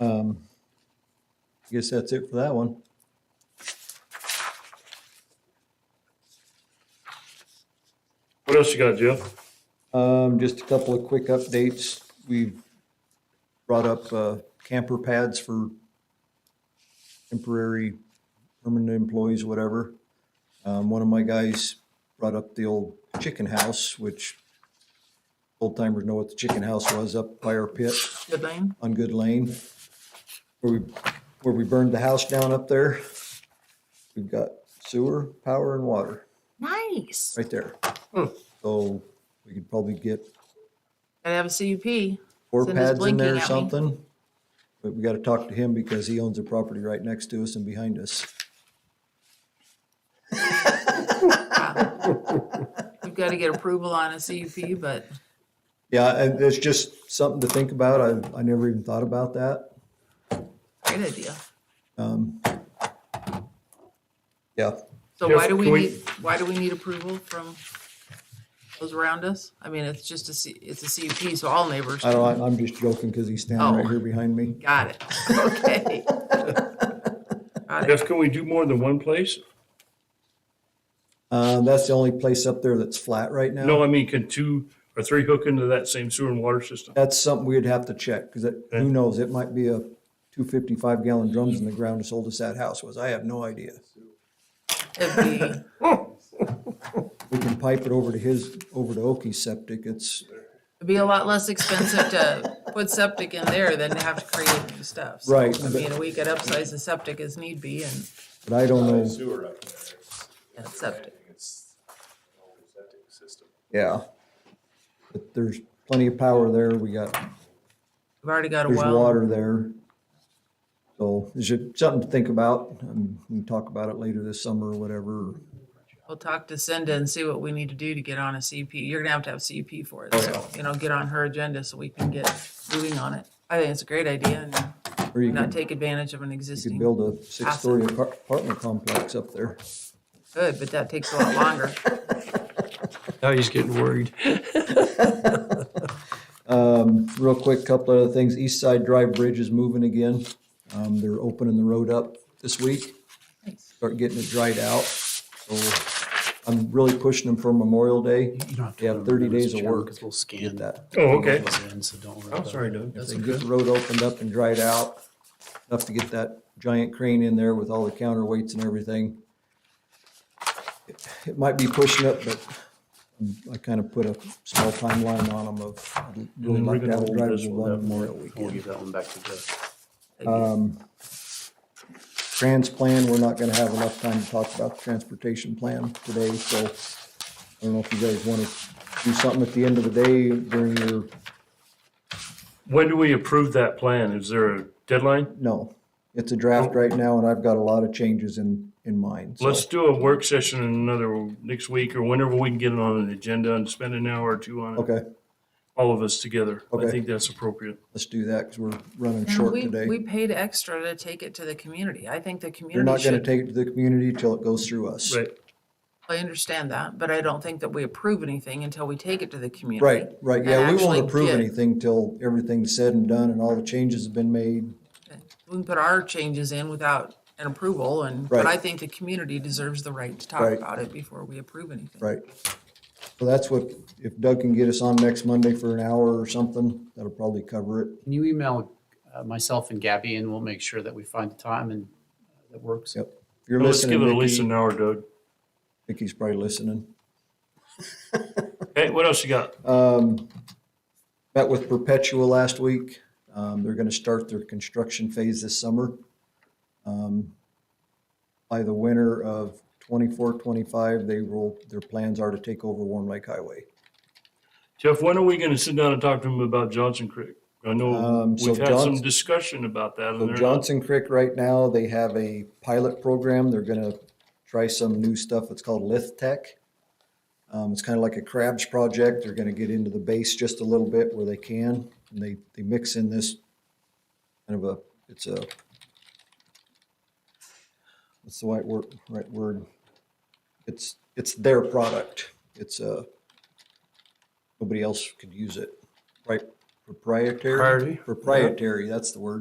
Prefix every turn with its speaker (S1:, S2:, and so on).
S1: Um, I guess that's it for that one.
S2: What else you got, Jeff?
S1: Um, just a couple of quick updates. We've brought up, uh, camper pads for temporary, permanent employees, whatever. Um, one of my guys brought up the old chicken house, which old timers know what the chicken house was up by our pit
S3: Good lane.
S1: on Good Lane. Where we, where we burned the house down up there. We've got sewer, power and water.
S3: Nice.
S1: right there.
S2: Hmm.
S1: So we could probably get
S3: Gotta have a CUP.
S1: four
S3: Cindy's
S1: pads in there or
S3: blinking at me.
S1: something. But we gotta talk to him because he owns a property right next to us and behind us.
S3: We've got to get approval on a CUP, but
S1: Yeah, and it's just something to think about. I, I never even thought about that.
S3: great idea.
S1: Um, yeah,
S3: So
S2: Jeff,
S3: why do we
S2: can we-
S3: need, why do we need approval from those around us? I mean, it's just a, C- it's a CUP, so all neighbors.
S1: I don't, I'm just joking because he's standing right
S3: Oh.
S1: here behind me.
S3: Got it. Okay. Got it.
S2: Jeff, can we do more than one place?
S1: Uh, that's the only place up there that's flat right now.
S2: No, I mean, can two or three hook into that same sewer and water system?
S1: That's something we'd have to check because
S2: Okay.
S1: who knows? It might be a two fifty-five gallon drums in the ground as old as that house was. I have no idea.
S3: It'd be-
S1: we can pipe it over to his, over to Oki's septic, it's,
S3: It'd be a lot less expensive to put septic in there than to have to create new stuff. So,
S1: Right,
S3: I
S1: but-
S3: mean, we could upsize the septic as need be and
S1: but I don't
S4: Not a
S1: know,
S4: sewer up there. It's-
S3: and septic.
S4: It's an old septic system.
S1: yeah. But there's plenty of power there, we got,
S3: We've already got a
S1: there's
S3: well.
S1: water there. So, is it something to think about, and we can talk about it later this summer or whatever.
S3: We'll talk to Cindy and see what we need to do to get on a CUP. You're gonna have to have CUP for it, so, you know, get on her agenda so we can get moving on it. I think it's a great idea and
S1: Or you
S3: not
S1: could,
S3: take advantage of an
S1: you could
S3: existing.
S1: build a six-story apart- apartment complex up there.
S3: Good, but that takes a lot longer.
S5: Now he's getting worried.
S1: Real quick, couple other things, East Side Drive Bridge is moving again, um, they're opening the road up this week. start getting it dried out. So I'm really pushing them for Memorial Day. They have 30 days of work to
S5: We'll
S1: get
S5: scan that.
S1: that.
S2: Oh, okay.
S5: So don't worry
S2: I'm
S5: about
S2: sorry,
S5: it.
S2: Doug.
S1: If they can get the road opened up and dried out, enough to get that giant crane in there with all the counterweights and everything. It might be pushing it, but I kind of put a small timeline on them of, I'd really
S2: then we're
S1: like to
S2: gonna
S1: have it
S2: hold
S1: drive
S2: this
S1: to
S2: one up.
S1: Memorial
S5: We'll
S1: weekend.
S5: give that one back to Jeff.
S1: Um, Trans plan, we're not gonna have enough time to talk about the transportation plan today, so I don't know if you guys wanna do something at the end of the day during your,
S2: When do we approve that plan? Is there a deadline?
S1: no. It's a draft right now and I've got a lot of changes in, in mind, so.
S2: Let's do a work session in another, next week or whenever we can get it on an agenda and spend an hour or two on it,
S1: Okay,
S2: all of us together. I
S1: Okay.
S2: think that's appropriate.
S1: let's do that, cause we're running
S3: And
S1: short
S3: we, we
S1: today.
S3: paid extra to take it to the community. I think the
S1: You're
S3: community
S1: not gonna
S3: should,
S1: take it to the community till it goes through us.
S2: Right.
S3: I understand that, but I don't think that we approve anything until we take it to the community.
S1: Right, right, yeah,
S3: And
S1: we won't
S3: actually
S1: approve
S3: get-
S1: anything till everything's said and done and all the changes have been made.
S3: We can put our changes in without an approval and, but
S1: Right.
S3: I think the community deserves the right to talk
S1: Right.
S3: about it before we approve anything.
S1: Right. So that's what, if Doug can get us on next Monday for an hour or something, that'll probably cover it.
S5: Can you email uh, myself and Gabby and we'll make sure that we find a time and uh, that works?
S1: Yep. If you're
S2: Let's give
S1: listening,
S2: it at least
S1: Nikki,
S2: an hour, Doug.
S1: Nikki's probably listening.
S2: Hey, what else you got?
S1: Um, met with Perpetua last week. Um, they're gonna start their construction phase this summer. Um, By the winter of twenty-four, twenty-five, they will, their plans are to take over Warm Lake Highway.
S2: Jeff, when are we gonna sit down and talk to him about Johnson Creek? I know
S1: Um, so
S2: we've had some
S1: Johnson-
S2: discussion about that and
S1: So
S2: they're not-
S1: Johnson Creek right now, they have a pilot program. They're gonna try some new stuff. It's called Lith Tech. Um, it's kind of like a crabs project. They're gonna get into the base just a little bit where they can. And they, they mix in this kind of a, it's a, what's the right word, right word? It's, it's their product. It's uh, a, nobody else could use it, right? Proprietary?
S5: Priority.
S1: Proprietary, that's the word.